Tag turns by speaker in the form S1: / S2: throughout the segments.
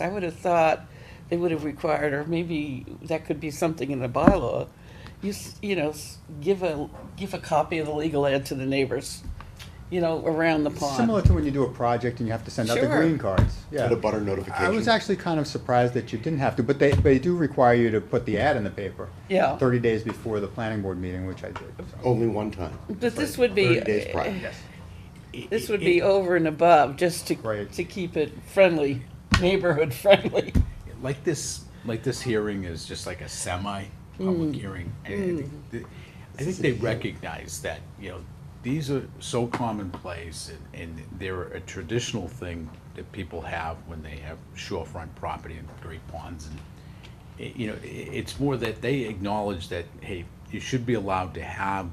S1: I would have thought they would have required, or maybe that could be something in the bylaw, you, s- you know, s- give a, give a copy of the legal ad to the neighbors, you know, around the
S2: Similar
S1: pond.
S2: to when you do a project and you have to send out the
S1: Sure.
S2: green cards. Yeah.
S3: Get a butter
S2: I was
S3: notification.
S2: actually kind of surprised that you didn't have to, but they, they do require you to put the ad in the paper.
S1: Yeah.
S2: Thirty days before the planning board meeting, which I did. so.
S3: Only one time.
S1: But this would be. eh,
S3: Thirty days prior.
S1: This would be over and above, just to,
S2: Right.
S1: to keep it friendly, neighborhood friendly.
S4: like this, like this hearing is just like a semi-public hearing. and I think th- I think they recognize that, you know, these are so commonplace and, and they're a traditional thing that people have when they have shorefront property and great ponds and, i- you know, i- it's more that they acknowledge that, hey, you should be allowed to have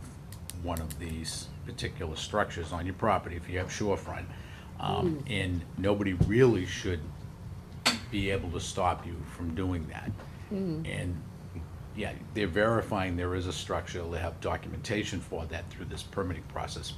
S4: one of these particular structures on your property if you have shorefront. Um, and nobody really should be able to stop you from doing that. And, yeah, they're verifying there is a structure, they have documentation for that through this permitting process.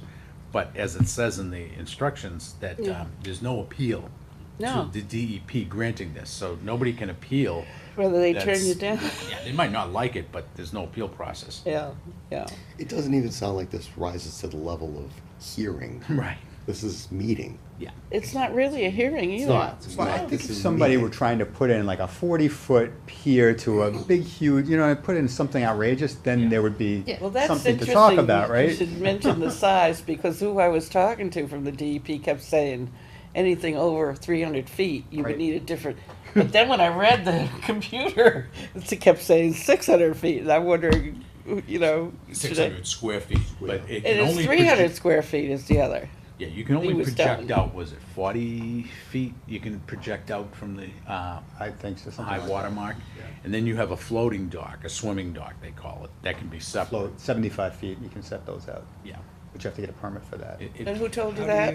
S4: But as it says in the instructions, that um, there's no appeal
S1: No.
S4: to the DEP granting this, so nobody can appeal.
S1: Whether they turn
S4: That's-
S1: you down,
S4: Yeah, they might not like it, but there's no appeal process.
S1: yeah, yeah.
S3: It doesn't even sound like this rises to the level of hearing.
S4: Right.
S3: This is meeting.
S4: Yeah.
S1: It's not really a hearing either.
S2: Well, I
S3: not.
S2: think
S3: This
S2: if
S3: is
S2: somebody
S3: meeting.
S2: were trying to put in like a forty-foot pier to a big huge, you know, and put in something outrageous, then there would be
S1: Well, that's
S2: something
S1: interesting.
S2: to talk about,
S1: You- You
S2: right?
S1: should mention the size, because who I was talking to from the DEP kept saying, anything over three hundred feet, you would
S2: Right.
S1: need a different. But then when I read the computer, it kept saying six hundred feet, and I'm wondering, you know. should I-
S4: Six hundred square feet, but
S1: It
S4: it can
S1: is
S4: only.
S1: three hundred
S4: project-
S1: square feet is the other.
S4: Yeah, you can
S1: He
S4: only
S1: was
S4: project
S1: done.
S4: out, was it forty feet? You can project out from the, uh,
S2: I think so, something
S4: high
S2: like that.
S4: water mark. And then you have a floating dock, a swimming dock, they call it, that can be separate.
S2: Float, seventy-five feet, you can set those out,
S4: Yeah.
S2: but you have to get a permit for that.
S4: It- it-
S1: And who told you
S4: how
S1: that?
S4: do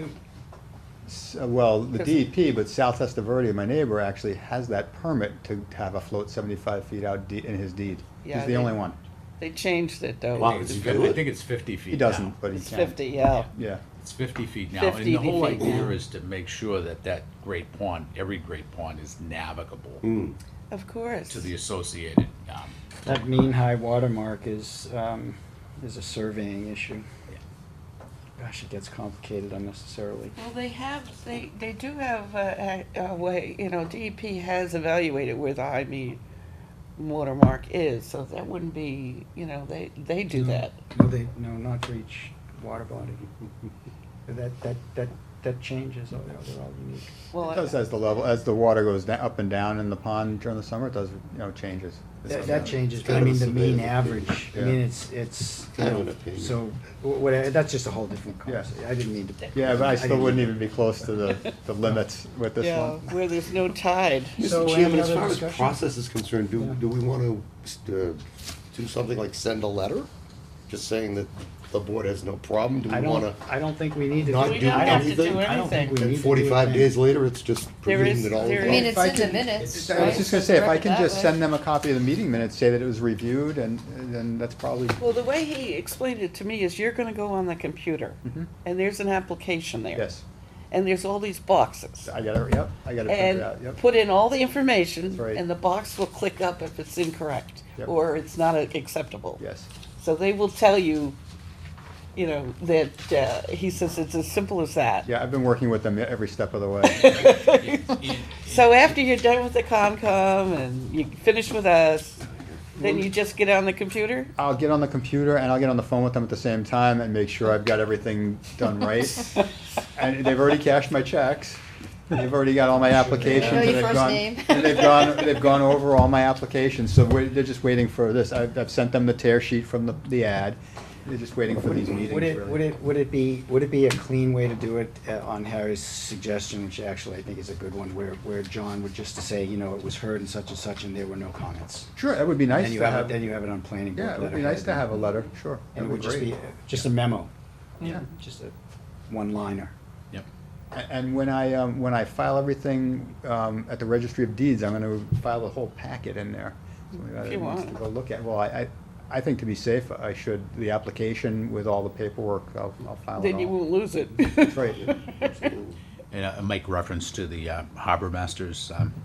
S2: S- Uh, Well, the
S1: 'Cause-
S2: DEP, but South Esta Verde, my neighbor, actually has that permit to have a float seventy-five feet out de- in his deed.
S1: Yeah,
S2: He's
S1: they-
S2: the only one.
S1: They changed it though.
S3: Wow,
S4: It's
S3: it's
S4: fif- I
S3: good.
S4: think it's fifty feet
S2: He
S4: now.
S2: doesn't, but he
S1: It's
S2: can.
S1: fifty, yeah.
S2: Yeah,
S4: It's fifty feet now, and
S1: 50
S4: the whole
S1: feet
S4: idea
S1: now.
S4: is to make sure that that great pond, every great pond is navigable
S2: Mm.
S1: Of course.
S4: to the associated, um,
S5: That mean high water mark is, um, is a surveying issue. Gosh, it gets complicated unnecessarily.
S1: Well, they have, they, they do have uh, a, a a way, you know, DEP has evaluated where the high mean watermark is, so that wouldn't be, you know, they, they do that.
S5: No, they, no, not for each water body. That, that, that, that changes, oh, they're they're all unique.
S1: Well,
S2: it does as the level, as the water goes da- up and down in the pond during the summer, it does, you know, changes.
S5: That, that changes,
S3: It's
S5: but I
S3: kind of
S5: mean,
S3: a
S5: the mean
S3: surveyor's
S5: average, I
S2: Yeah.
S5: mean, it's, it's, you
S3: Kind of an
S5: know,
S3: opinion.
S5: so, wh- whatever, that's just a whole different conversation. I didn't mean to.
S2: Yeah, but I still
S5: didn't
S2: wouldn't
S5: mean
S2: even be close to the, the limits with this
S1: yeah,
S2: one.
S1: where there's no tide.
S5: to- So,
S3: Mr.
S5: any
S3: Chairman, as
S5: other
S3: far as
S5: discussion?
S3: process is concerned, do,
S5: Yeah.
S3: do we want to do something like send a letter? Just saying that the board has no problem? Do
S5: I
S3: we want
S5: don't,
S3: to?
S5: I don't think we need to.
S3: not
S5: do-
S1: We don't
S5: I
S1: have to
S3: anything?
S1: do
S5: I don't think
S1: anything.
S5: we need
S3: And
S5: to do
S3: forty-five
S5: anything.
S3: days later, it's just
S1: There
S3: presumed
S1: is-
S3: that all
S1: there
S3: of
S6: I mean,
S3: that.
S6: it's
S2: If I
S6: in the
S2: could-
S6: minutes,
S2: I was
S6: right?
S2: just gonna say, if I can
S6: That
S2: just
S6: way.
S2: send them a copy of the meeting minutes, say that it was reviewed, and, and then that's probably,
S1: Well, the way he explained it to me is you're gonna go on the computer, and there's an application there.
S2: Mm-hmm. yes.
S1: And there's all these boxes.
S2: I got it, yep, I got it printed out,
S1: and
S2: yep.
S1: put in all the
S2: That's
S1: information,
S2: right.
S1: and the box will click up if it's incorrect,
S2: Yep.
S1: or it's not uh, acceptable.
S2: Yes,
S1: So they will tell you, you know, that, uh, he says it's as simple as that.
S2: yeah, I've been working with them every step of the way.
S1: So after you're done with the Concom and you finish with us, then you just get on the computer?
S2: I'll get on the computer and I'll get on the phone with them at the same time and make sure I've got everything done right. And they've already cashed my checks. They've already got all my applications.
S6: Know your
S2: and they've
S6: first
S2: gone-
S6: name.
S2: and They've gone, they've gone over all my applications, so we're, they're just waiting for this. I've, I've sent them the tear sheet from the, the ad. They're just waiting for these meetings,
S5: Would it, would
S2: really.
S5: it, would it be, would it be a clean way to do it uh, on Harry's suggestion, which actually I think is a good one, where, where John would just to say, you know, it was heard and such and such and there were no comments?
S2: Sure, that would be nice
S5: Then you
S2: to
S5: have, it- then
S2: have,
S5: you have it on planning board.
S2: yeah, it would be
S5: letterhead.
S2: nice to have a letter, sure. that'd
S5: And it would
S2: be
S5: just
S2: great.
S5: be, uh, just a memo,
S2: Yeah.
S5: just a one-liner.
S4: yep.
S2: A- And when I, um, when I file everything, um, at the registry of deeds, I'm gonna file the whole packet in there. So maybe
S1: If
S2: I
S1: you
S2: need
S1: want.
S2: to Go look at, well, I, I, I think to be safe, I should, the application with all the paperwork, I'll, I'll file it
S1: Then you
S2: all.
S1: won't lose it.
S2: Right.
S4: And I make reference to the uh, harbor uh, master's um,